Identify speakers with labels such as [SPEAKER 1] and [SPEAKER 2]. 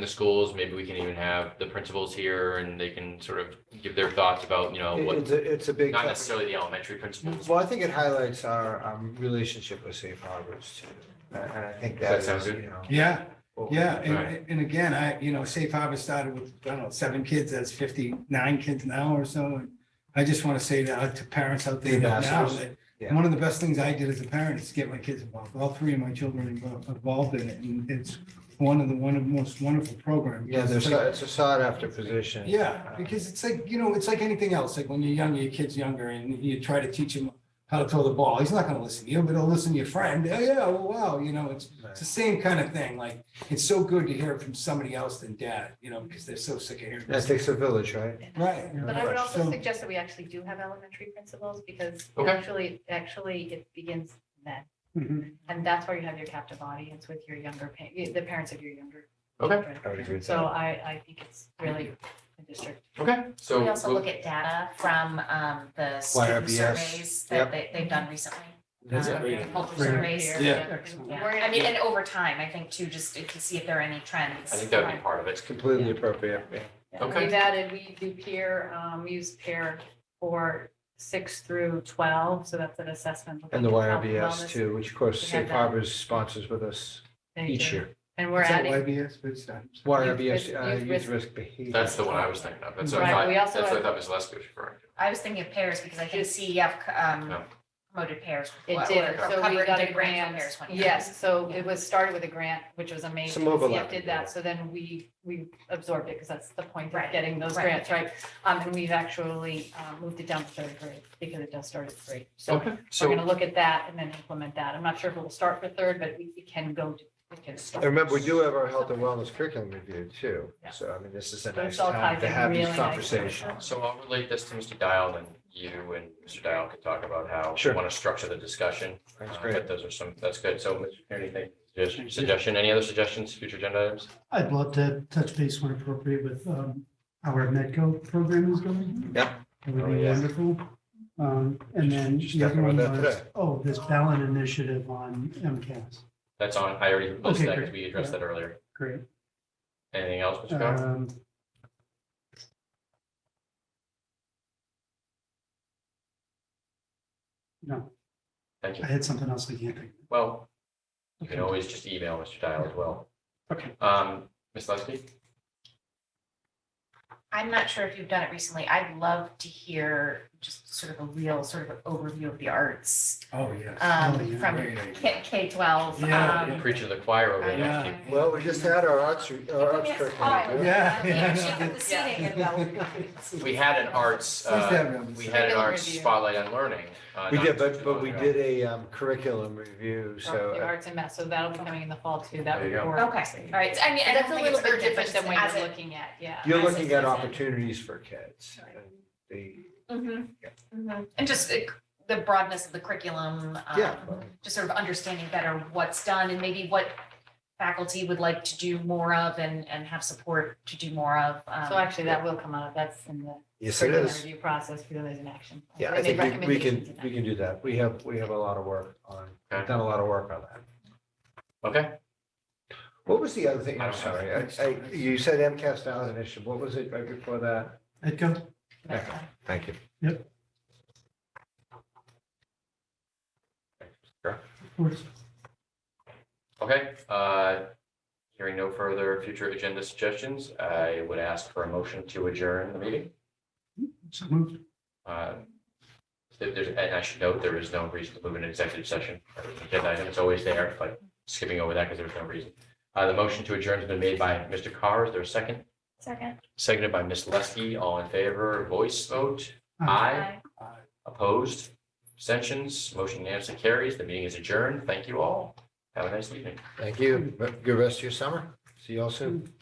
[SPEAKER 1] the schools, maybe we can even have the principals here and they can sort of give their thoughts about, you know,
[SPEAKER 2] It-
[SPEAKER 1] what,
[SPEAKER 2] It's a, it's a big.
[SPEAKER 1] not
[SPEAKER 2] topic.
[SPEAKER 1] necessarily the elementary principals.
[SPEAKER 2] Well, I think it highlights our um, relationship with safe harbors too. And and I think
[SPEAKER 1] Does
[SPEAKER 2] that
[SPEAKER 1] that
[SPEAKER 2] is,
[SPEAKER 1] sound good?
[SPEAKER 2] you know.
[SPEAKER 3] Yeah,
[SPEAKER 2] what we-
[SPEAKER 3] yeah. And,
[SPEAKER 1] Right.
[SPEAKER 3] and again, I, you know, Safe Harbor started with, I don't know, seven kids, that's fifty-nine kids now or so. And I just want to say to, to parents out there that now,
[SPEAKER 2] Ambassadors.
[SPEAKER 3] that
[SPEAKER 2] Yeah.
[SPEAKER 3] one of the best things I did as a parent is get my kids involved. All three of my children invo- involved in it. And it's one of the, one of the most wonderful programs.
[SPEAKER 2] Yeah, there's, a- it's a sought after position. Um,
[SPEAKER 3] Yeah, because it's like, you know, it's like anything else. Like when you're younger, your kid's younger and you try to teach him how to throw the ball. He's not gonna listen to you, but he'll listen to your friend. Oh, yeah, well, wow, you know, it's, it's the same kind of thing. Like, it's so good to hear it from somebody else than dad, you know, because they're so sick of hearing.
[SPEAKER 2] That
[SPEAKER 3] this.
[SPEAKER 2] takes a village, right?
[SPEAKER 3] Right.
[SPEAKER 4] But I would also
[SPEAKER 3] So-
[SPEAKER 4] suggest that we actually do have elementary principals because
[SPEAKER 1] Okay.
[SPEAKER 4] actually, actually it begins then.
[SPEAKER 3] Mhm.
[SPEAKER 4] And that's where you have your captive audience with your younger, pa- the parents of your younger.
[SPEAKER 1] Okay.
[SPEAKER 4] children.
[SPEAKER 2] I would agree with
[SPEAKER 4] So
[SPEAKER 2] that.
[SPEAKER 4] I, I think it's really the district.
[SPEAKER 1] Okay, so.
[SPEAKER 5] We also
[SPEAKER 1] we'll-
[SPEAKER 5] look at data from um, the student
[SPEAKER 2] YRBS,
[SPEAKER 5] surveys
[SPEAKER 2] yep.
[SPEAKER 5] that they- they've done recently.
[SPEAKER 1] That's
[SPEAKER 5] um,
[SPEAKER 1] great.
[SPEAKER 5] Agricultural
[SPEAKER 3] Great.
[SPEAKER 5] surveys.
[SPEAKER 3] Yeah.
[SPEAKER 4] And
[SPEAKER 5] Yeah,
[SPEAKER 4] we're-
[SPEAKER 5] I mean, and over time, I think too, just to see if there are any trends.
[SPEAKER 1] I think that would be part of it.
[SPEAKER 2] It's completely appropriate. yeah.
[SPEAKER 1] Okay.
[SPEAKER 4] We've added, we do peer, um, we use peer for six through twelve, so that's an assessment. of
[SPEAKER 2] And the
[SPEAKER 4] health and
[SPEAKER 2] YRBS
[SPEAKER 4] wellness.
[SPEAKER 2] too, which of course
[SPEAKER 4] We have
[SPEAKER 2] Safe
[SPEAKER 4] that.
[SPEAKER 2] Harbors sponsors with us
[SPEAKER 4] Thank
[SPEAKER 2] each
[SPEAKER 4] you.
[SPEAKER 2] year.
[SPEAKER 4] And we're
[SPEAKER 3] Is that
[SPEAKER 4] adding,
[SPEAKER 3] YBS, Good stuff.
[SPEAKER 2] YRBS,
[SPEAKER 4] risk-
[SPEAKER 2] uh,
[SPEAKER 4] youth
[SPEAKER 2] youth
[SPEAKER 4] risk-
[SPEAKER 2] risk behavior.
[SPEAKER 1] That's the one I was thinking of. That's what I
[SPEAKER 4] Right,
[SPEAKER 1] thought,
[SPEAKER 4] we
[SPEAKER 1] that's
[SPEAKER 4] also
[SPEAKER 1] what I
[SPEAKER 4] have-
[SPEAKER 1] thought Ms. Lesko was referring to.
[SPEAKER 5] I was thinking of pairs because I think CEF um,
[SPEAKER 1] Yeah.
[SPEAKER 5] promoted pairs.
[SPEAKER 4] it
[SPEAKER 5] Well,
[SPEAKER 4] did,
[SPEAKER 5] or
[SPEAKER 4] so we
[SPEAKER 5] covered
[SPEAKER 4] got
[SPEAKER 5] the
[SPEAKER 4] a
[SPEAKER 5] grant
[SPEAKER 4] grant.
[SPEAKER 5] for pairs one year.
[SPEAKER 4] Yes, so it was started with a grant, which was amazing.
[SPEAKER 2] Some overlap.
[SPEAKER 4] CF did that, so then we, we absorbed it because that's the point of
[SPEAKER 5] Right,
[SPEAKER 4] getting those
[SPEAKER 5] right.
[SPEAKER 4] grants, right? Um, and we've actually, uh, moved it down to third grade because it does start at three. So
[SPEAKER 1] Okay,
[SPEAKER 4] we're
[SPEAKER 1] so,
[SPEAKER 4] gonna look at that and then implement that. I'm not sure if it'll start for third, but we it can go, to- it can
[SPEAKER 2] And
[SPEAKER 4] start.
[SPEAKER 2] remember, we do have our health and wellness curriculum review too.
[SPEAKER 4] Yeah.
[SPEAKER 2] So I mean, this is a
[SPEAKER 4] But
[SPEAKER 2] nice
[SPEAKER 4] it's all
[SPEAKER 2] time
[SPEAKER 4] tied
[SPEAKER 2] to
[SPEAKER 4] in
[SPEAKER 2] have these
[SPEAKER 4] really nicely.
[SPEAKER 2] conversations.
[SPEAKER 1] so I'll relate this to Mr. Dial and you and Mr. Dial can talk about how
[SPEAKER 2] Sure.
[SPEAKER 1] we want to structure the discussion.
[SPEAKER 2] That's
[SPEAKER 1] Uh,
[SPEAKER 2] great.
[SPEAKER 1] but Those are some, that's good. So Mr. Kearney, thank you. Just suggestion, any other suggestions, future agenda items?
[SPEAKER 6] I'd love to touch base when appropriate with um, how our Medco program is going.
[SPEAKER 2] Yep.
[SPEAKER 6] It would
[SPEAKER 1] Oh,
[SPEAKER 6] be
[SPEAKER 1] yeah.
[SPEAKER 6] wonderful. Um, And then
[SPEAKER 2] Just
[SPEAKER 6] the other
[SPEAKER 2] talking
[SPEAKER 6] one
[SPEAKER 2] about that
[SPEAKER 6] was,
[SPEAKER 2] today.
[SPEAKER 6] oh, this ballot initiative on MCAS.
[SPEAKER 1] That's on, I already
[SPEAKER 6] Okay,
[SPEAKER 1] posted that
[SPEAKER 6] great.
[SPEAKER 1] because we addressed that earlier.
[SPEAKER 6] Great.
[SPEAKER 1] Anything else, Mr.
[SPEAKER 2] Uh,
[SPEAKER 1] Dial?
[SPEAKER 6] Um, No,
[SPEAKER 1] Thank you.
[SPEAKER 6] I had something else I can't think.
[SPEAKER 1] Well, you
[SPEAKER 6] of.
[SPEAKER 1] can always just email Mr. Dial as well.
[SPEAKER 6] Okay.
[SPEAKER 1] Um, Ms. Leskey?
[SPEAKER 5] I'm not sure if you've done it recently. I'd love to hear just sort of a real sort of overview of the arts
[SPEAKER 3] Oh, yes.
[SPEAKER 5] um,
[SPEAKER 3] Oh, yeah,
[SPEAKER 5] from
[SPEAKER 3] yeah, yeah, yeah.
[SPEAKER 5] K, K twelve.
[SPEAKER 3] Yeah,
[SPEAKER 5] um,
[SPEAKER 1] Preach to the choir over there.
[SPEAKER 3] Yeah.
[SPEAKER 1] Chief.
[SPEAKER 2] Well, we just had our arts, our arts
[SPEAKER 5] Yes,
[SPEAKER 2] curriculum.
[SPEAKER 5] oh,
[SPEAKER 2] review.
[SPEAKER 3] Yeah, yeah.
[SPEAKER 5] she put the seating in the-
[SPEAKER 1] We had an arts,
[SPEAKER 3] Nice to
[SPEAKER 1] uh,
[SPEAKER 3] have them.
[SPEAKER 1] we had an
[SPEAKER 4] Curriculum
[SPEAKER 1] arts
[SPEAKER 4] review.
[SPEAKER 1] spotlight on learning. uh,
[SPEAKER 2] We
[SPEAKER 1] not
[SPEAKER 2] did,
[SPEAKER 1] too
[SPEAKER 2] but, but
[SPEAKER 1] long
[SPEAKER 2] we
[SPEAKER 1] ago.
[SPEAKER 2] did a um, curriculum review, so.
[SPEAKER 4] The
[SPEAKER 2] uh,
[SPEAKER 4] arts and math, so that'll be coming in the fall too. That
[SPEAKER 1] There
[SPEAKER 4] would
[SPEAKER 1] you go.
[SPEAKER 4] work.
[SPEAKER 5] Okay, all right. I mean, I
[SPEAKER 4] That's
[SPEAKER 5] don't
[SPEAKER 4] a
[SPEAKER 5] think
[SPEAKER 4] little
[SPEAKER 5] it's
[SPEAKER 4] bit
[SPEAKER 5] urgent, but
[SPEAKER 4] different
[SPEAKER 5] just
[SPEAKER 4] than what
[SPEAKER 5] as
[SPEAKER 4] you're
[SPEAKER 5] it.
[SPEAKER 4] looking at, yeah.
[SPEAKER 2] You're
[SPEAKER 5] As a
[SPEAKER 2] looking at
[SPEAKER 5] citizen.
[SPEAKER 2] opportunities for kids.
[SPEAKER 5] Right.
[SPEAKER 2] and The,
[SPEAKER 5] Mhm, mhm. And just uh, the broadness of the curriculum. um,
[SPEAKER 2] yeah,
[SPEAKER 5] Just sort of understanding better what's done and maybe what faculty would like to do more of and, and have support to do more of. um,
[SPEAKER 4] So actually, that will come out. That's in the
[SPEAKER 2] yes, it
[SPEAKER 4] curriculum
[SPEAKER 2] is.
[SPEAKER 4] review process for those in action.
[SPEAKER 2] Yeah,
[SPEAKER 4] They
[SPEAKER 2] I
[SPEAKER 4] made
[SPEAKER 2] think we- we
[SPEAKER 4] recommendations
[SPEAKER 2] can,
[SPEAKER 4] in that.
[SPEAKER 2] we can do that. We have, we have a lot of work on, we've
[SPEAKER 1] Okay.
[SPEAKER 2] done a lot of work on that.
[SPEAKER 1] Okay,
[SPEAKER 2] What was the other thing?
[SPEAKER 1] I
[SPEAKER 2] I'm
[SPEAKER 1] don't have
[SPEAKER 2] sorry. I, I, you said MCAS now is an issue. What was it right before that?
[SPEAKER 6] Medco?
[SPEAKER 4] That's fine.
[SPEAKER 2] Thank you.
[SPEAKER 6] Of course.
[SPEAKER 1] okay. uh, Hearing no further future agenda suggestions, I would ask for a motion to adjourn the meeting.
[SPEAKER 6] So moved.
[SPEAKER 1] Uh, if there's- And I should note, there is no reason to move into executive session. Agenda item is always there, but skipping over that because there's no reason. Uh, The motion to adjourn has been made by Mr. Carr. Is there a second?
[SPEAKER 5] Second.
[SPEAKER 1] Seconded by Ms. Leskey. All in favor, voice vote. Aye. Opposed? Abstentions? Motion unanimously carries. The meeting is adjourned. Thank you all. Have a nice evening.
[SPEAKER 2] Thank you. Good rest of your summer. See you all soon.